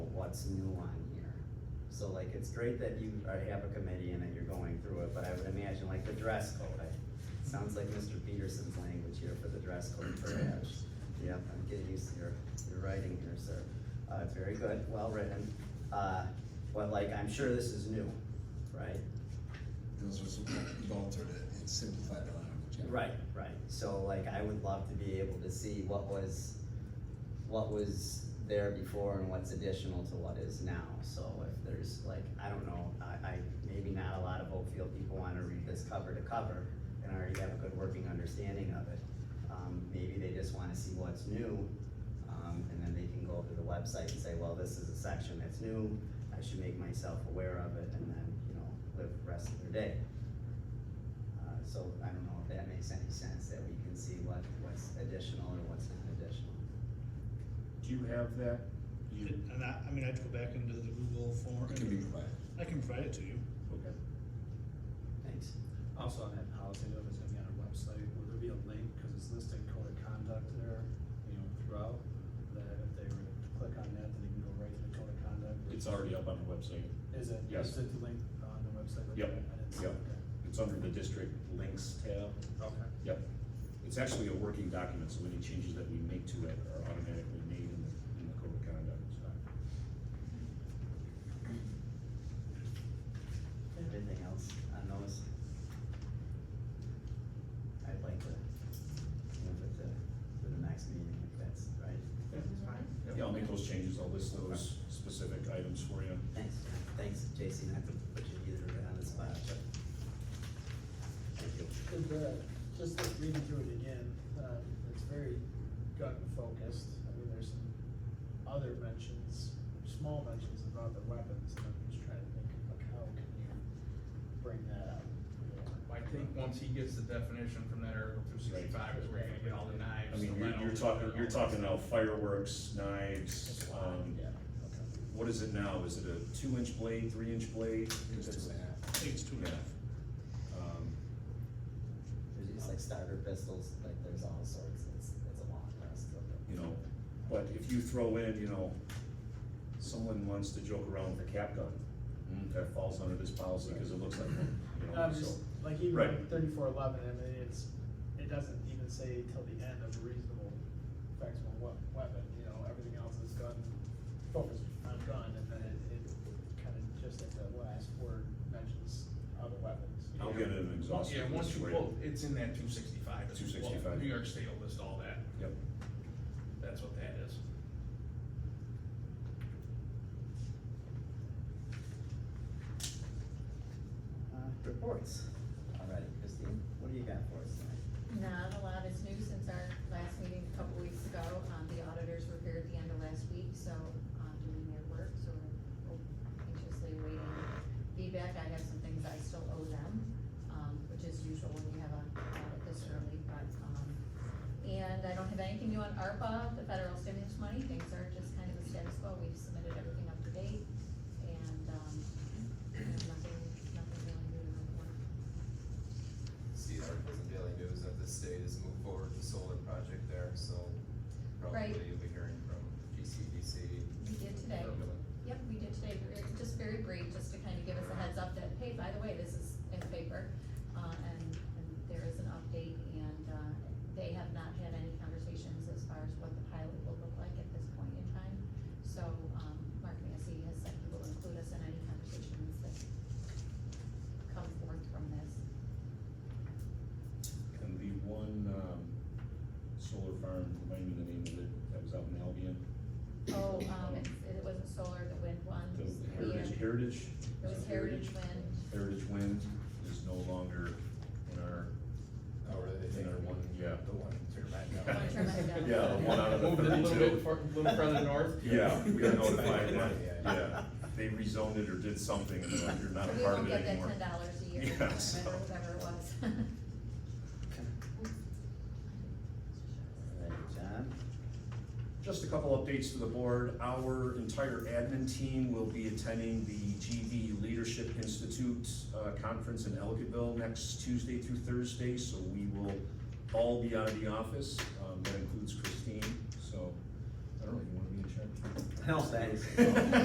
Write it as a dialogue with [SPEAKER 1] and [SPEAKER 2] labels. [SPEAKER 1] what's new on here. So like, it's great that you already have a committee and that you're going through it, but I would imagine like the dress code, I, sounds like Mr. Peterson's language here for the dress code perhaps. Yep, I'm getting used to your, your writing here, sir. Uh, it's very good, well written, uh, but like, I'm sure this is new, right?
[SPEAKER 2] Those are some altered and simplified language. yeah.
[SPEAKER 1] Right, right, so like, I would love to be able to see what was, what was there before and what's additional to what is now, so if there's like, I don't know, I, I, maybe not a lot of Oakfield people wanna read this cover to cover and already have a good working understanding of it. Um, maybe they just wanna see what's new, um, and then they can go to the website and say, well, this is a section that's new, I should make myself aware of it, and then, you know, live the rest of their day. Uh, So I don't know if that makes any sense, that we can see what, what's additional or what's not additional.
[SPEAKER 3] Do you have that? You,
[SPEAKER 4] And I, I mean, I have to go back into the Google form.
[SPEAKER 2] It can be provided.
[SPEAKER 4] I can provide it to you.
[SPEAKER 3] okay.
[SPEAKER 1] Thanks.
[SPEAKER 5] Also on that policy, though, if it's gonna be on our website, would there be a link, cause it's listing code of conduct there, you know, throughout, that if they were to click on that, then they can go right to the code of conduct?
[SPEAKER 3] It's already up on the website.
[SPEAKER 5] Is it,
[SPEAKER 3] Yes.
[SPEAKER 5] is it the link on the website?
[SPEAKER 3] Yep,
[SPEAKER 5] I didn't see
[SPEAKER 3] yep.
[SPEAKER 5] it.
[SPEAKER 3] It's under the district links tab.
[SPEAKER 5] Okay. Okay.
[SPEAKER 3] Yep. It's actually a working document, so any changes that we make to it are automatically made in the, in the code of conduct.
[SPEAKER 1] Anything else on those? I'd like to move it to, to the next meeting if that's right.
[SPEAKER 3] Yeah, I'll make those changes. I'll list those specific items for you.
[SPEAKER 1] Thanks, thanks, JC, not to put you either on the spot, but. Thank you.
[SPEAKER 6] And, uh, just like reading through it again, um, it's very gut focused, I mean, there's some other mentions, small mentions about the weapons, and I'm just trying to think, like, how can you bring that up?
[SPEAKER 7] I think once he gets the definition from that article two sixty-five is where you're gonna get all the
[SPEAKER 3] I
[SPEAKER 7] knives.
[SPEAKER 3] mean,
[SPEAKER 7] the
[SPEAKER 3] you're, you're
[SPEAKER 7] lentils,
[SPEAKER 3] talking,
[SPEAKER 7] and
[SPEAKER 3] you're
[SPEAKER 7] all that
[SPEAKER 3] talking now
[SPEAKER 7] stuff.
[SPEAKER 3] fireworks, knives, um,
[SPEAKER 6] Yeah, okay.
[SPEAKER 3] what is it now? Is it a two inch blade, three inch blade?
[SPEAKER 2] It was two and a half.
[SPEAKER 4] I think it's two and a half.
[SPEAKER 3] Um,
[SPEAKER 1] There's just like starter pistols, like there's all sorts, it's, it's a long list of them.
[SPEAKER 3] you know, but if you throw in, you know, someone wants to joke around with a cap gun,
[SPEAKER 7] Mm-hmm.
[SPEAKER 3] that falls under this policy, cause it looks like one, you
[SPEAKER 6] No,
[SPEAKER 8] Um,
[SPEAKER 3] know,
[SPEAKER 6] I'm
[SPEAKER 3] so.
[SPEAKER 6] just, Um, like, even
[SPEAKER 3] Right.
[SPEAKER 6] thirty-four eleven, I mean, it's, it doesn't even say till the end of reasonable effectual wea- weapon, you know, everything else is gun, focused on gun, and then it, it kind of just at the last word mentions other weapons. you
[SPEAKER 3] I'll
[SPEAKER 6] know?
[SPEAKER 3] get an exhaustive.
[SPEAKER 7] Yeah,
[SPEAKER 3] list
[SPEAKER 7] once you
[SPEAKER 3] for you.
[SPEAKER 7] pull, it's in that two sixty-five.
[SPEAKER 3] 265.
[SPEAKER 7] New York State will list all that,
[SPEAKER 3] Yep,
[SPEAKER 7] that's what that is.
[SPEAKER 1] Uh, reports, alrighty, Christine, what do you got for us tonight?
[SPEAKER 8] Not a lot is new since our last meeting a couple weeks ago. Um, the auditors were here at the end of last week, so, um, doing their work, so we're anxiously waiting feedback. I have some things I still owe them, um, which is usual when you have a audit this early, but, um, and I don't have anything new on ARPA, the federal stimulus money. Things are just kind of a status quo. We've submitted everything up to date, and, um, nothing, nothing really new to report.
[SPEAKER 9] see the articles in Daily News that the state has moved forward with the solar project there, so
[SPEAKER 8] Right.
[SPEAKER 9] probably you'll be hearing from GCDC.
[SPEAKER 8] We did today.
[SPEAKER 9] Probably.
[SPEAKER 8] Yep, we did today, Very- just very brief, just to kind of give us a heads up that, hey, by the way, this is in the paper. Uh, and, and there is an update and, uh, they have not had any conversations as far as what the pilot will look like at this point in time. So, um, Mark Massey has said he will include us in any conversations that come forth from this.
[SPEAKER 3] and the one, um, solar farm, remind me the name of it, that was out in Albion,
[SPEAKER 8] Oh, um, it's- it wasn't solar, the wind one.
[SPEAKER 3] the Heritage, Heritage?
[SPEAKER 8] Um, It was Heritage Wind.
[SPEAKER 3] Heritage Wind is no longer in our,
[SPEAKER 9] Oh, really?
[SPEAKER 3] in our one, yeah.
[SPEAKER 9] The one turbine down.
[SPEAKER 8] One turbine down.
[SPEAKER 3] Yeah, the one out of the
[SPEAKER 7] Moved it a little
[SPEAKER 3] 32.
[SPEAKER 7] bit far- little further north.
[SPEAKER 3] Yeah, we got notified
[SPEAKER 9] Yeah,
[SPEAKER 3] that,
[SPEAKER 9] yeah.
[SPEAKER 3] yeah, they rezoned it or did something, and they're like, you're not a
[SPEAKER 8] We
[SPEAKER 3] part of
[SPEAKER 8] won't
[SPEAKER 3] it
[SPEAKER 8] get that
[SPEAKER 3] anymore.
[SPEAKER 8] ten dollars a year,
[SPEAKER 3] Yeah, so-
[SPEAKER 8] whatever, whatever it was.
[SPEAKER 1] Alright, John?
[SPEAKER 3] Just a couple updates to the board. Our entire admin team will be attending the GV Leadership Institute uh, Conference in Ellicottville next Tuesday through Thursday, so we will all be out of the office. Um, That includes Christine, so, I don't know, you wanna be in charge?
[SPEAKER 1] No, thanks.